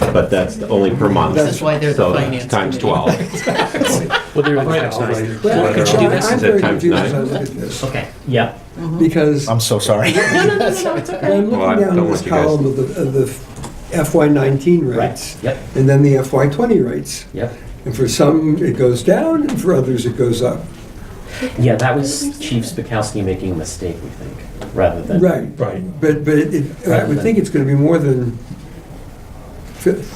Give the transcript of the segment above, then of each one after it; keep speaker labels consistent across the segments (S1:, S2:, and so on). S1: but that's the only per month.
S2: This is why they're the
S1: So
S2: finance
S1: Times
S2: committee.
S1: 12.
S3: Well, they're in
S4: Right,
S3: times
S4: right.
S3: nine.
S5: Well,
S3: Well, could you
S5: I-
S3: do this?
S5: I'm
S1: Is it
S5: very
S1: times
S5: confused
S1: nine?
S5: as I look at this,
S2: Okay,
S4: Yeah,
S5: because
S6: I'm so sorry.
S5: I'm
S1: Well, I
S5: looking
S1: don't
S5: down this
S1: want you guys-
S5: column of the, of the FY nineteen rates.
S4: right, yep,
S5: And then the FY twenty rates.
S4: yep.
S5: And for some, it goes down, and for others, it goes up.
S4: Yeah, that was Chief Spakowski making a mistake, we think, rather than.
S5: Right,
S3: Right.
S5: but, but it- it, I would think it's gonna be more than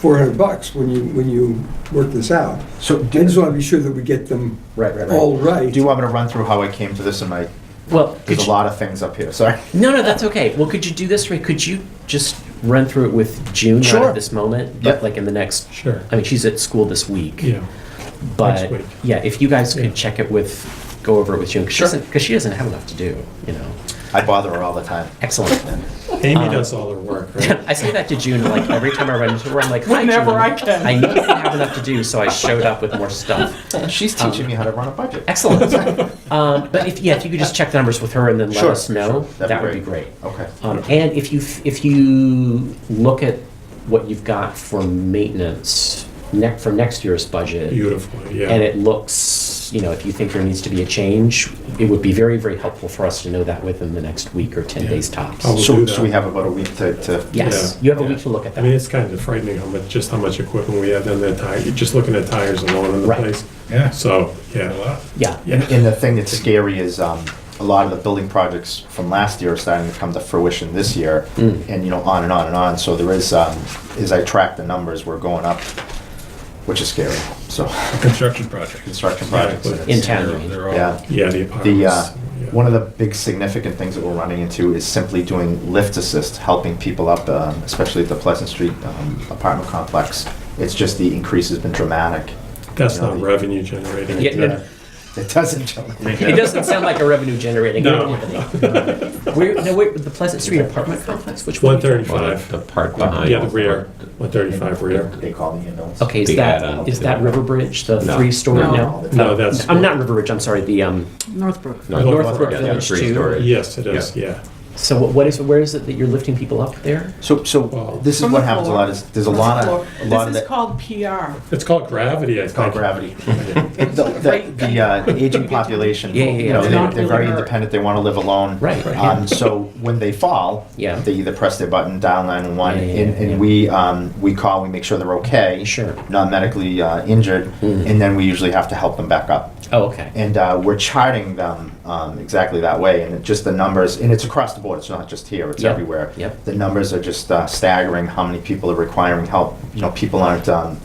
S5: four hundred bucks when you, when you work this out.
S6: So
S5: I
S6: do,
S5: just wanna be sure that we get them
S4: Right, right, right.
S2: Oh.
S5: all right.
S6: do you want me to run through how I came to this in my,
S4: Well, could
S6: there's a
S4: you,
S6: lot of things up here, sorry.
S4: no, no, that's okay. Well, could you do this, Ray? Could you just run through it with June, not
S6: Sure.
S4: at this moment, but
S6: Yep.
S4: like in the next,
S3: Sure,
S4: I mean, she's at school this week.
S3: yeah.
S4: But,
S3: week.
S4: yeah, if you guys
S3: Yeah.
S4: could check it with, go over it with June, because she
S6: Sure.
S4: doesn't, 'cause she doesn't have enough to do, you know?
S6: I bother her all the time.
S4: Excellent.
S3: Amy does all her work, right?
S4: I say that to June, like every time I run into her, I'm like, Hi,
S2: Whenever
S4: June.
S2: I can.
S4: I know I have enough to do, so I showed up with more stuff.
S6: She's teaching me how to run a budget.
S4: Excellent. um, but if yeah, if you could just check the numbers with her and then let
S6: Sure,
S4: us know,
S6: sure. That'd
S4: that
S6: be
S4: would be great.
S6: great. Okay.
S4: Um, and if you if you look at what you've got for maintenance ne- for next year's budget,
S3: Beautifully, yeah.
S4: and it looks, you know, if you think there needs to be a change, it would be very very helpful for us to know that within the next week or ten
S3: Yeah.
S4: days tops.
S3: Oh. We'll
S6: So,
S3: do
S6: so
S3: that.
S6: we have about a week to, to.
S4: Yes,
S3: Yeah.
S4: you have a
S3: Yeah.
S4: week to look at that.
S3: I mean, it's kind of frightening how much, just how much equipment we have in that tire, you're just looking at tires alone in the
S4: Right.
S3: place.
S7: Yeah.
S3: So, yeah,
S4: yeah.
S3: yeah,
S6: And the thing that's scary is, um, a lot of the building projects from last year are starting to come to fruition this year.
S4: Mm.
S6: And, you know, on and on and on. So there is, um, as I track the numbers, we're going up, which is scary. So
S7: Construction project.
S6: construction projects.
S3: but-
S6: it's-
S4: In town, you mean?
S7: They're all-
S6: Yeah.
S3: yeah, the
S6: The, uh,
S3: apartments. yeah.
S6: one of the big significant things that we're running into is simply doing lift assist, helping people up, um, especially at the Pleasant Street um, apartment complex. It's just the increase has been dramatic.
S3: That's
S6: you know,
S3: not
S6: the-
S3: revenue generating.
S4: Yeah, no, no.
S6: It doesn't jump.
S4: It doesn't sound like a revenue generating.
S3: No.
S4: Where, no, wait, the Pleasant Street apartment complex, which one?
S3: One thirty-five,
S8: The part behind.
S3: yeah, the rear, one thirty-five rear.
S6: They call the ambulance.
S4: Okay, is
S8: Big
S4: that,
S8: add-on
S4: is
S8: to
S4: that
S8: that.
S4: River Bridge, the
S8: No.
S4: three-story?
S6: No,
S3: No, that's.
S4: I'm not River Bridge, I'm sorry, the, um,
S2: Northbrook.
S8: No,
S4: Northbrook
S8: yeah,
S4: Village
S8: three
S4: too.
S8: story.
S3: Yes, it is,
S8: Yeah.
S3: yeah.
S4: so what- what is, where is it that you're lifting people up there?
S6: So, so this is
S2: From
S6: what
S2: the
S6: happens a
S2: floor.
S6: lot is, there's a lot of, a lot of
S2: This is
S6: that.
S2: called PR.
S3: It's called gravity, I think.
S6: Called gravity.
S3: Yeah.
S6: The, the, the, uh, the aging population,
S4: Yeah, yeah,
S6: you
S4: yeah.
S6: know,
S4: They're
S6: they're,
S4: not
S6: they're
S4: really
S6: very
S4: hurt.
S6: independent, they wanna live alone.
S4: Right, right.
S6: Um, so when they fall,
S4: Yeah.
S6: they either press their button, dial nine one,
S4: Yeah, yeah,
S6: and,
S4: yeah.
S6: and we, um, we call, we make sure they're okay.
S4: Sure.
S6: Not medically, uh, injured,
S4: Mhm.
S6: and then we usually have to help them back up.
S4: Oh, okay.
S6: And, uh, we're charting them, um, exactly that way, and it just the numbers, and it's across the board, it's not just here, it's
S4: Yep,
S6: everywhere.
S4: yep.
S6: The numbers are just, uh, staggering, how many people are requiring help, you know, people aren't, um,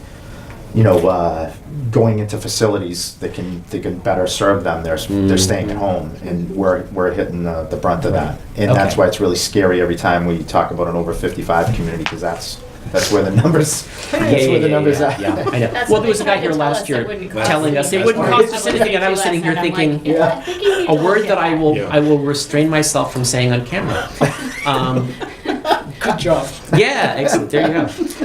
S6: you know, uh, going into facilities that can that can better serve them. They're they're staying at
S4: Mm-hmm.
S6: home, and we're we're hitting the, the brunt of that. And that's
S4: Okay.
S6: why it's really scary every time we talk about an over fifty five community because that's that's where the numbers
S4: Yeah,
S6: that's
S4: yeah,
S6: where the
S4: yeah,
S6: numbers
S4: yeah,
S6: are.
S4: yeah, I know.
S9: That's
S4: Well,
S9: what
S4: there was a
S9: they
S4: guy
S9: tried to
S4: here
S9: tell
S4: last
S9: us,
S4: year
S9: it wouldn't cost
S4: telling us it
S9: anything.
S4: wouldn't
S9: That's
S4: cost
S9: what
S4: us
S9: they
S4: anything, and I was
S9: said
S4: sitting here
S9: last night. I'm
S4: thinking,
S9: like, yeah, I think you need
S4: a
S9: to
S4: word
S9: look
S4: that
S9: at
S4: I will
S3: Yeah.
S4: I will restrain myself from saying on camera. Um,
S2: Good job.
S4: yeah, excellent. There you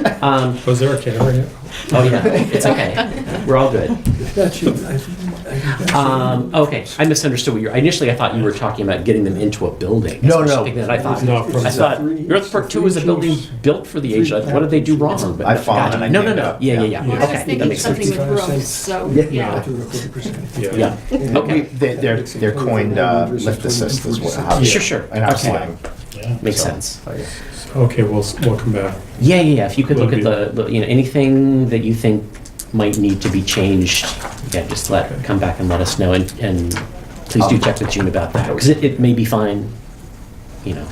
S4: go. Um,
S3: Was there a camera here?
S4: oh yeah, it's okay. We're all good.
S5: That should, I think, I think that
S4: Um, okay, I misunderstood what you were. Initially, I thought you were talking about getting them into a building.
S6: No,
S4: That's
S6: no.
S4: something That I thought.
S3: No, from-
S4: I thought
S5: Three-
S4: Northbrook Two is a
S5: three
S4: building
S5: choice.
S4: built for the aged. What did they do wrong? But
S6: I've fallen and I
S4: no, no,
S6: gave
S4: no.
S6: up.
S4: Yeah, yeah,
S6: Yeah.
S4: yeah.
S9: Well, I was
S4: Okay, that
S9: thinking
S4: makes sense.
S9: something with roofs,
S5: 25%.
S9: so,
S5: Yeah.
S9: yeah.
S5: should- to a quarter percent.
S4: Yeah.
S5: And
S4: Okay.
S5: we-
S6: They, they're they're coined uh, lift assist as well. How
S4: Sure, sure.
S6: In our
S4: Okay.
S6: slang.
S4: Makes
S6: So, oh,
S4: sense.
S6: okay.
S3: Okay, we'll, s- we'll come back.
S4: Yeah, yeah, yeah. If you could
S3: Will
S4: look at the, the- you know, anything that you think might need to be changed, yeah, just let, come back and let us know, and, and please
S1: Um,
S4: do check with June about that, because it, it may be fine, you know.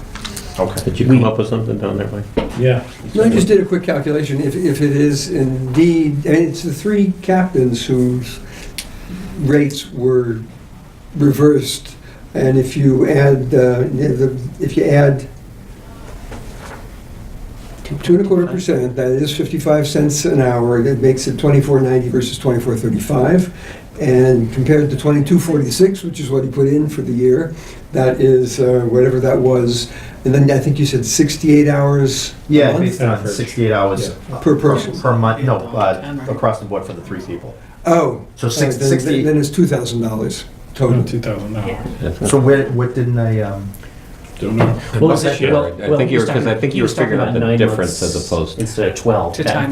S6: Okay.
S1: Did you
S4: We-
S1: come up with something down there, Mike?
S3: Yeah.
S5: No, I just did a quick calculation. If, if it is indeed, and it's the three captains whose rates were reversed. And if you add, uh, the- if you add two and a quarter percent, that is 55 cents an hour, that makes it 24.90 versus 24.35. And compared to 22.46, which is what he put in for the year, that is uh, whatever that was. And then I think you said 68 hours a
S6: Yeah,
S5: month?
S6: based on
S3: Average.
S6: 68 hours
S5: Per person.
S6: per month. No, uh, across the board for the three people.
S5: Oh.
S6: So six-
S5: uh, then-
S6: 60
S5: Then it's two thousand dollars total.
S7: Two thousand dollars.
S6: So where what didn't I? Um,
S7: Don't know.
S4: Well, is it-
S1: Yeah,
S4: well-
S1: I
S4: well,
S1: think
S4: he
S1: you
S4: was
S1: were- 'cause I
S4: talking-
S1: think
S4: he
S1: you
S4: was
S1: were figuring
S4: talking
S1: out the
S4: about nine
S1: difference
S4: months
S1: as opposed-
S4: Instead of twelve.
S2: To
S4: That-
S2: time